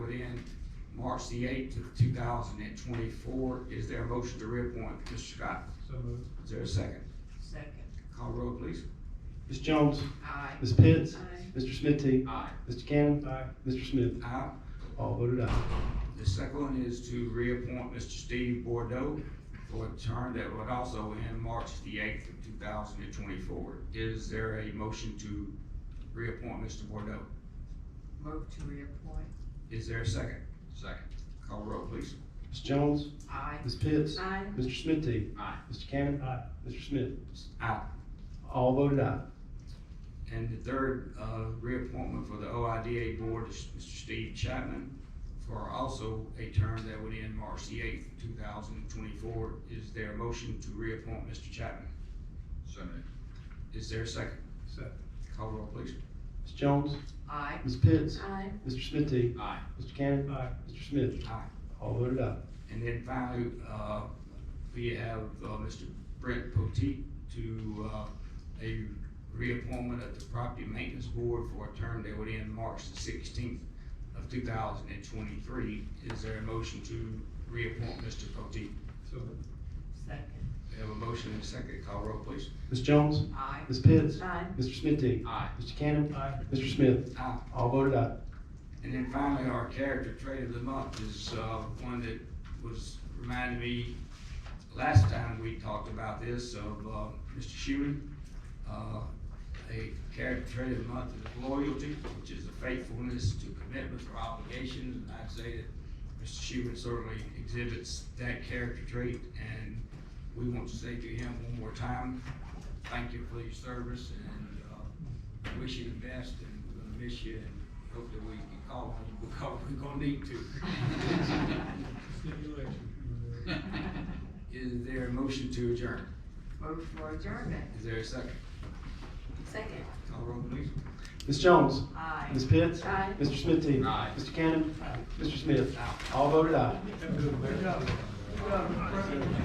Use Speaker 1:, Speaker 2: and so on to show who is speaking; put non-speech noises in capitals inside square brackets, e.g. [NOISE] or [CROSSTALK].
Speaker 1: March the eighth to two thousand and twenty-four. Is there a motion to reappoint Mr. Scott?
Speaker 2: So moved.
Speaker 1: Is there a second?
Speaker 3: Second.
Speaker 1: Call roll, please.
Speaker 4: Ms. Jones,
Speaker 3: Aye.
Speaker 4: Ms. Pitts,
Speaker 3: Aye.
Speaker 4: Mr. Smithy,
Speaker 1: Aye.
Speaker 4: Mr. Cannon,
Speaker 2: Aye.
Speaker 4: Mr. Smith,
Speaker 1: Aye.
Speaker 4: all voted aye.
Speaker 1: The second one is to reappoint Mr. Steve Bordeaux for a term that would also end March the eighth of two thousand and twenty-four. Is there a motion to reappoint Mr. Bordeaux?
Speaker 3: Move to reappoint.
Speaker 1: Is there a second? Second. Call roll, please.
Speaker 4: Ms. Jones,
Speaker 3: Aye.
Speaker 4: Ms. Pitts,
Speaker 3: Aye.
Speaker 4: Mr. Smithy,
Speaker 1: Aye.
Speaker 4: Mr. Cannon,
Speaker 2: Aye.
Speaker 4: Mr. Smith,
Speaker 1: Aye.
Speaker 4: all voted aye.
Speaker 1: And the third, uh, reappointment for the OIDA Board is Mr. Steve Chapman for also a term that would end March the eighth, two thousand and twenty-four. Is there a motion to reappoint Mr. Chapman? So Is there a second?
Speaker 2: Second.
Speaker 1: Call roll, please.
Speaker 4: Ms. Jones,
Speaker 3: Aye.
Speaker 4: Ms. Pitts,
Speaker 3: Aye.
Speaker 4: Mr. Smithy,
Speaker 1: Aye.
Speaker 4: Mr. Cannon,
Speaker 2: Aye.
Speaker 4: Mr. Smith,
Speaker 1: Aye.
Speaker 4: all voted aye.
Speaker 1: And then finally, uh, we have, uh, Mr. Brent Potteet to, uh, a reappointment of the Property Maintenance Board for a term that would end March the sixteenth of two thousand and twenty-three. Is there a motion to reappoint Mr. Potteet?
Speaker 2: So moved.
Speaker 3: Second.
Speaker 1: We have a motion and a second. Call roll, please.
Speaker 4: Ms. Jones,
Speaker 3: Aye.
Speaker 4: Ms. Pitts,
Speaker 3: [LAUGHS] Aye.
Speaker 4: Mr. Smithy,
Speaker 1: Aye.
Speaker 4: Mr. Cannon,
Speaker 2: Aye.
Speaker 4: Mr. Smith,
Speaker 1: Aye.
Speaker 4: all voted aye.
Speaker 1: And then finally, our character trait of the month is, uh, one that was, reminded me, last time we talked about this, of, uh, Mr. Shuey. Uh, a character trait of the month is loyalty, which is a faithfulness to commitments or obligations, and I'd say that Mr. Shuey certainly exhibits that character trait, and we want to say to him one more time, thank you for your service, and, uh, wish you the best, and we're gonna miss you, and hope that we can call [LAUGHS] on you because we're gonna need to. [LAUGHS]
Speaker 2: Stipulation.
Speaker 3: [LAUGHS]
Speaker 1: Is there a motion to adjourn?
Speaker 3: Move for adjournment.
Speaker 1: Is there a second?
Speaker 3: Second.
Speaker 1: Call roll please.
Speaker 4: Ms. Jones,
Speaker 3: Aye.
Speaker 4: Ms. Pitts,
Speaker 3: Aye.
Speaker 4: Mr. Smithy,
Speaker 1: Aye.
Speaker 4: Mr. Cannon, Mr. Smith,
Speaker 1: Aye.
Speaker 4: all voted aye.
Speaker 2: Good job. Good job.